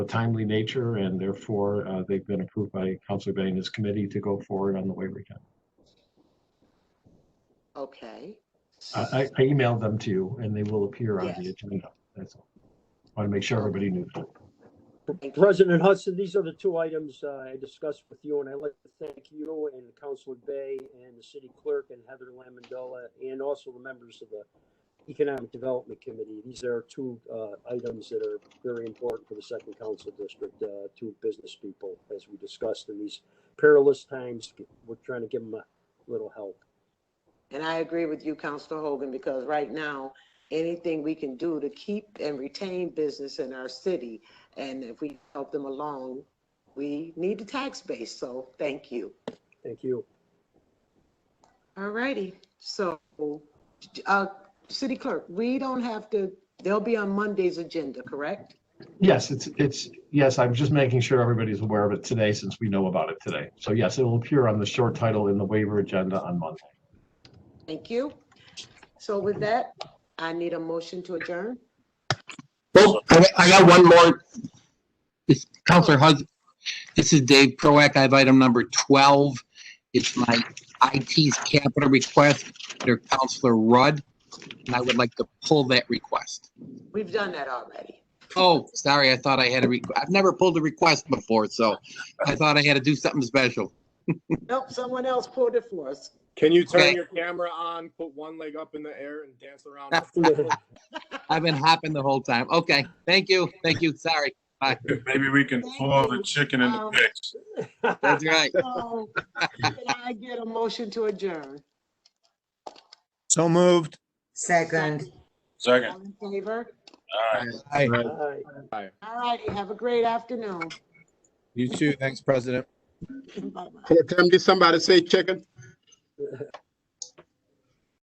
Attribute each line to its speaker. Speaker 1: timely nature, and therefore uh, they've been approved by Counselor Bay and his committee to go forward on the waiver account.
Speaker 2: Okay,
Speaker 1: I I emailed them to you, and they will appear on the
Speaker 2: Yes.
Speaker 1: agenda. That's all. Want to make sure everybody knew that.
Speaker 3: President Hudson, these are the two items uh, I discussed with you, and I'd like to thank you and Councilor Bay and the city clerk and Heather Lamandola, and also the members of the Economic Development Committee. These are two uh, items that are very important for the Second Council District, uh, two business people, as we discussed in these perilous times. We're trying to give them a little help.
Speaker 2: and I agree with you, Counselor Hogan, because right now, anything we can do to keep and retain business in our city, and if we help them along, we need the tax base, so thank you.
Speaker 3: Thank you.
Speaker 2: All righty, so, uh, city clerk, we don't have to, they'll be on Monday's agenda, correct?
Speaker 1: Yes, it's, it's, yes, I'm just making sure everybody's aware of it today since we know about it today. So yes, it will appear on the short title in the waiver agenda on Monday.
Speaker 2: Thank you. So with that, I need a motion to adjourn.
Speaker 4: Well, Oh, I I got one more. It's Counselor Hus, this is Dave Proack. I have item number 12. It's my IT's capital request under Counselor Rudd, and I would like to pull that request.
Speaker 2: We've done that already.
Speaker 4: Oh, sorry, I thought I had a, requ- I've never pulled a request before, so I thought I had to do something special.
Speaker 2: Nope, someone else pulled it for us.
Speaker 5: Can you turn
Speaker 4: Okay.
Speaker 5: your camera on, put one leg up in the air and dance around?
Speaker 4: I've been hopping the whole time. Okay, thank you, thank you, sorry.
Speaker 6: Maybe we can
Speaker 2: Thank
Speaker 6: pull
Speaker 2: you.
Speaker 6: the chicken and the
Speaker 2: Um,
Speaker 6: pigs.
Speaker 4: That's right.
Speaker 2: So Oh, can I get a motion to adjourn?
Speaker 5: So moved.
Speaker 7: Second.
Speaker 6: Second.
Speaker 2: All in favor?
Speaker 6: All right.
Speaker 5: Hi.
Speaker 3: Aye.
Speaker 2: All righty, have a great afternoon.
Speaker 5: You too. Thanks, President.
Speaker 2: Bye-bye.
Speaker 8: Hey, Tim, did somebody say chicken?